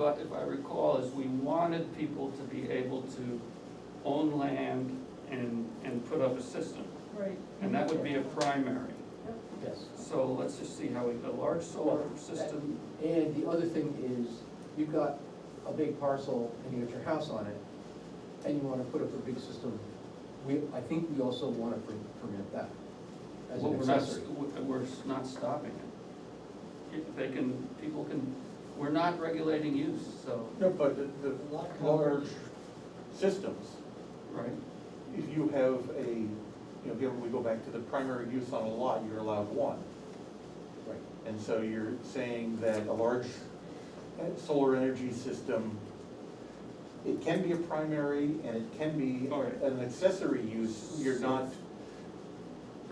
I- if I recall, is we wanted people to be able to own land and, and put up a system. Right. And that would be a primary. Yes, So let's just see how we, a large solar system, and the other thing is, you've got a big parcel and you got your house on it, and you wanna put up a big system, we, I think we also wanna per- permit that as well, an we're not, accessory. we- we're not stopping it. If they can, people can, we're not regulating use, so, No, but the, the Lot coverage. large systems, right? if you have a, you know, again, we go back to the primary use on a lot, you're allowed one. Right. And so you're saying that a large uh, solar energy system, it can be a primary and it can be All right. an accessory use, you're not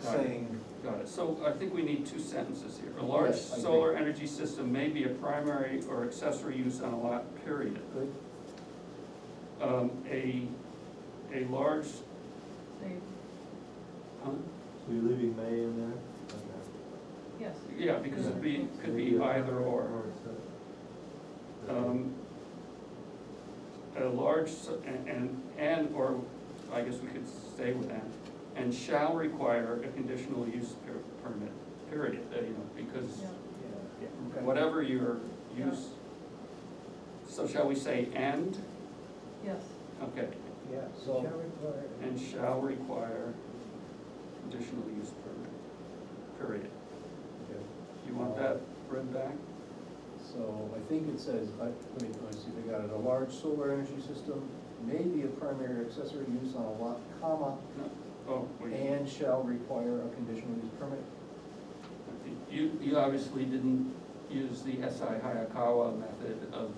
Got it. saying, Got it, so I think we need two sentences here. A large Yes, I agree. solar energy system may be a primary or accessory use on a lot, period. Good, Um, a, a large, Same, huh? So you're leaving May in there? Okay. yes. yeah, because it'd be, could be either or. Um, A large, s- and- and, and, or, I guess we could stay with that, and shall require a conditional use per- permit, period, Uh, you know, because Yeah. yeah, yeah, whatever your Yeah. use. So shall we say and? Yes, Okay, Yeah, So- shall require. and shall require conditional use permit, period. okay. You want that read back? So I think it says, I, let me, let me see, they got it, a large solar energy system may be a primary or accessory use on a lot, comma, No, oh, wait, and shall require a conditional use permit. you, you obviously didn't use the S.I. Hayakawa method of,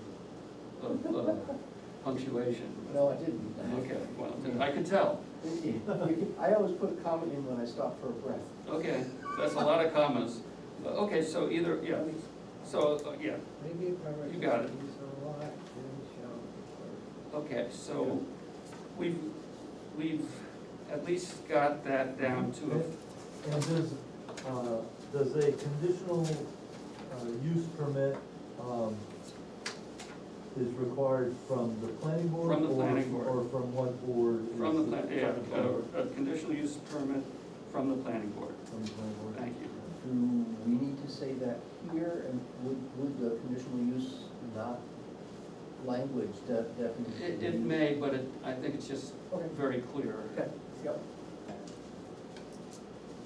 of uh, punctuation. No, I didn't. Okay, well, I could tell, I always put a comma in when I stop for a breath. okay, that's a lot of commas. Okay, so either, yeah, so, uh, yeah, Maybe a primary. You got it. use on a lot, and shall require. Okay, so we've, we've at least got that down to a, And does, uh, does a conditional, uh, use permit, um, is required from the planning board? From the or- planning board. Or from what board? is from the, it? plan- yeah, uh, a, a conditional use permit from the planning board. From the planning board? Thank you. Do we need to say that here, and would, would the conditional use not language de- definition? It, it may, but it, I think it's just Okay, very clear. okay, yep.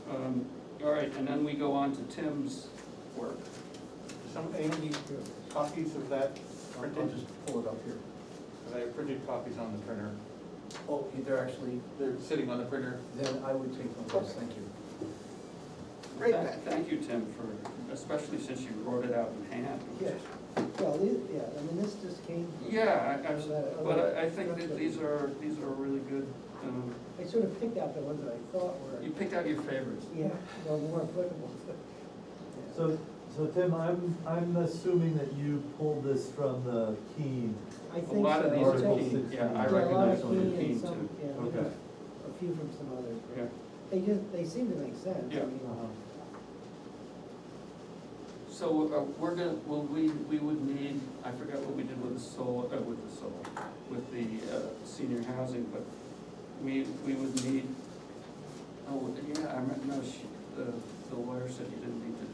Um, all right, and then we go on to Tim's work. some, any copies of that I'll- I'll printed? just pull it up here. Because I have printed copies on the printer, Oh, they're actually, they're sitting on the printer. then I would take one, yes, thank you. Right Thank- back. Thank you, Tim, for, especially since you wrote it out in hand. Yeah, well, these- yeah, I mean, this just came. from- Yeah, I, I, was- but I, I think that these are, these are really good, um, I sort of picked out the ones that I thought were, you picked out your favorites. yeah, were more applicable. So, so Tim, I'm, I'm assuming that you pulled this from the Keene. I think A so. lot of these are are Article key, sixteen. yeah, I Yeah, a lot recognize of some of key the and key some- too. Yeah, Okay. a few from some others. but Yeah, They just, they seem to make sense. I Yeah. Uh-huh. mean, so uh, we're gonna, well, we, we would need, I forgot what we did with the solar, uh, with the solar, with the, uh, senior housing, but we, we would need, oh, yeah, I meant, no, she, the, the lawyer said you didn't need to.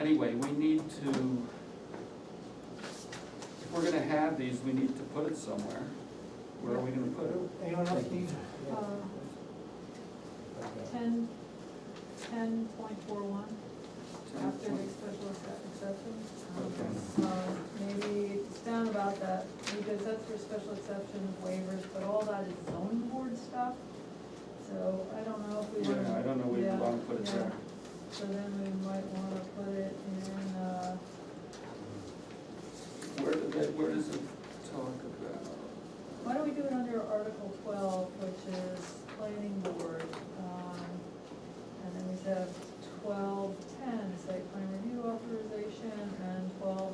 Anyway, we need to, if we're gonna have these, we need to put it somewhere. Where are we gonna put it? Anyone else need? Yeah. Um, ten, ten point four one, after the special accep- exception. Um, uh, Maybe it's down about that, because that's for special exception waivers, but all that is zone board stuff. So I don't know if we want to. Yeah, I don't know, we wanna put it there. So then we might want to put it in, uh, Where did that, where does it talk about? Why don't we do it under Article twelve, which is planning board, um, and then we have twelve ten, site plan review authorization, and twelve E